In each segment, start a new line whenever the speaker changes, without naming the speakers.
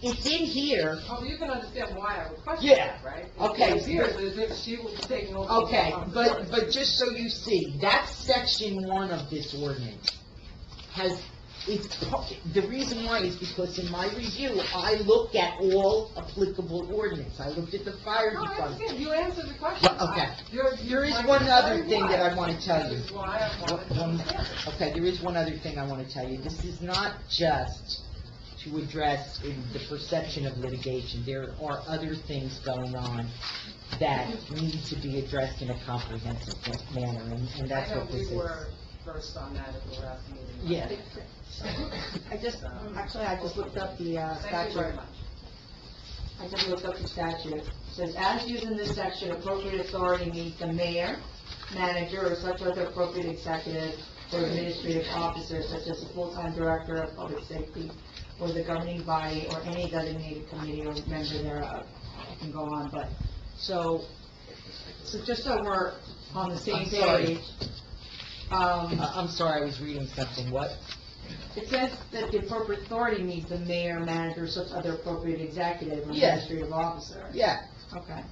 It's in here,
Oh, you can understand why I would question
Yeah.
that, right?
Okay.
It appears as if she was taking over. the
okay, but,
responsibility.
but just so you see, that's section one of this ordinance. Has, it's, pu- the reason why is because in my review, I look at all applicable ordinance. I looked at the fire
No, I
department.
understand, you answered the question.
Well, okay.
I- you're-
There is
like,
one
very
other thing that
wise.
I wanna tell you.
This is why I wanted to
One- one-
understand.
Okay, there is one other thing I want to tell you. This is not just to address in the perception of litigation. There are other things going on that need to be addressed in a comprehensive manner, and and that's what this is.
I know we were first on that at the last meeting.
Yeah.
I just, actually, I just looked up the uh,
Thank you very
statute.
much.
I just looked up the statute. It Says, as used in this section, appropriate authority means the mayor, manager, or such other appropriate executive or administrative officer, such as the full-time director of public safety, or the governing body, or any designated committee or member thereof. I can go on, but, so, so just so we're on the same
I'm sorry.
page. Um,
I- Uh, I'm sorry, I was reading something. What?
It says that the appropriate authority means the mayor, manager, such other appropriate executive or
Yes.
administrative officer.
Yeah,
Okay.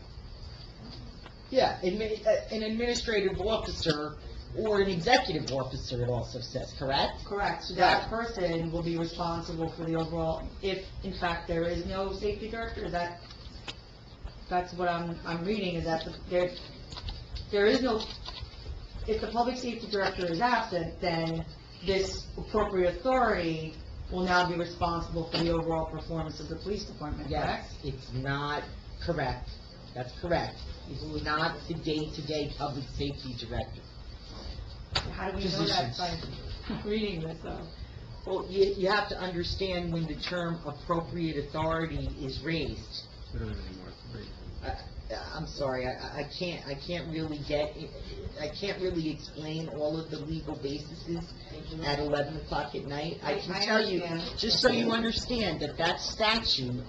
yeah, admi- uh, an administrative officer or an executive officer, it also says, correct?
Correct, so that person will be responsible for the overall, if in fact there is no safety director, is that, that's what I'm, I'm reading, is that the- there, there is no, if the public safety director is absent, then this appropriate authority will now be responsible for the overall performance of the police department, correct?
Yes, it's not correct. That's correct. It's not the day-to-day public safety director.
How do we know that by reading this, though?
Well, you, you have to understand when the term appropriate authority is raised. Uh,
We don't have any more three.
I'm sorry, I, I- I can't, I can't really get, I can't really explain all of the legal bases at 11 o'clock at night. I can
I- I
tell you,
understand.
just so you understand, that that statute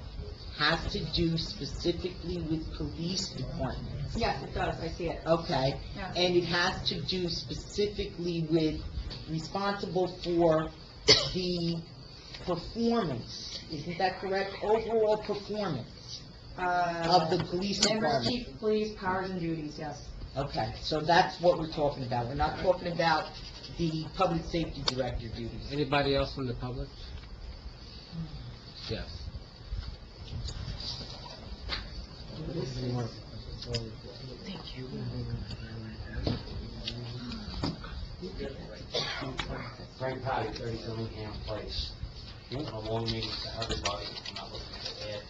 has to do specifically with police departments,
Yes, it does, I see it.
okay?
Yeah.
and it has to do specifically with responsible for the performance, isn't that correct? Overall performance of the police
Members,
department.
uh, chief of police, powers and duties, yes.
Okay, so that's what we're talking about, we're not talking about the public safety director duties.
Anybody else from the public? Yes.
Frank Potty, 30 Dillingham Place. A long meeting to everybody, I'm not looking to add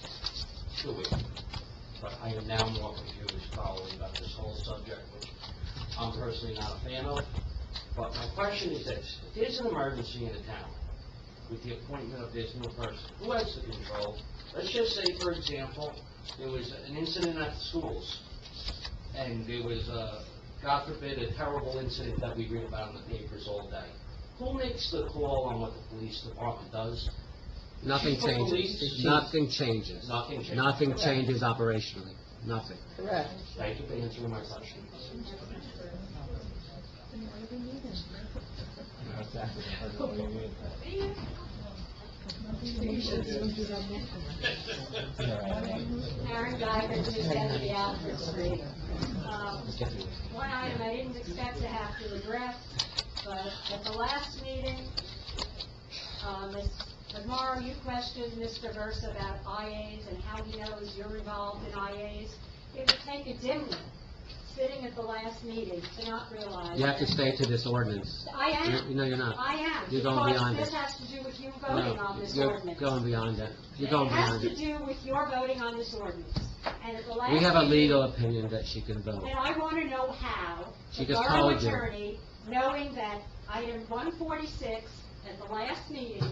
to it, but I am now more confused probably about this whole subject, which I'm personally not a fan of. But my question is this, if there's an emergency in the town with the appointment of this new person, who has the control? Let's just say, for example, there was an incident at the schools, and there was, uh, God forbid, a terrible incident that we read about in the papers all day. Who makes the call on what the police department does?
Nothing
Chief of
changes.
police?
Nothing changes.
Nothing changes.
Nothing changes operationally. Nothing.
Correct.
Thank you for answering my question.
Karen Geiger, two seventy Alfred Street. Um, One item I didn't expect to have to address, but at the last meeting, uh, Ms. Lamar, you questioned Mr. Verse about IAs and how he knows you're involved in IAs. It would take a dimwit, sitting at the last meeting, to not realize.
You have to stay to this ordinance.
I
You-
am,
No, you're not.
I am.
You're going beyond
Because
it.
this has to do with you voting on
No,
this
you're
ordinance.
going beyond that. You're going beyond
It has
it.
to do with your voting on this ordinance. And at the last...
We have a
meeting-
legal opinion that she can vote.
And I want to know how
She
the
just
borough
told you.
attorney, knowing that item 146 at the last meeting,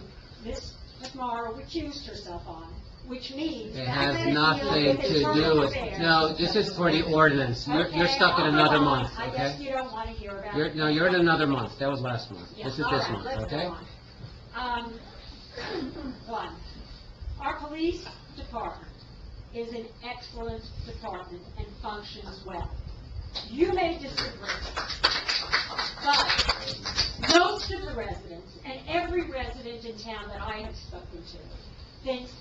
Ms. McMorro recused herself on, which means...
It
that had
has
deal
nothing
with
to
internal
do with,
affairs.
no, this is for the ordinance. You're, you're
Okay,
stuck in
I'll go
another
on.
month,
I guess
okay?
you don't want to hear about it.
You're, no, you're in another month. That was last month.
Yeah,
This is
all
this
right, let's
month,
go
okay?
on. Um, One, our police department is an excellent department and functions well. You may disagree, but most of the residents, and every resident in town that I have spoken to, thinks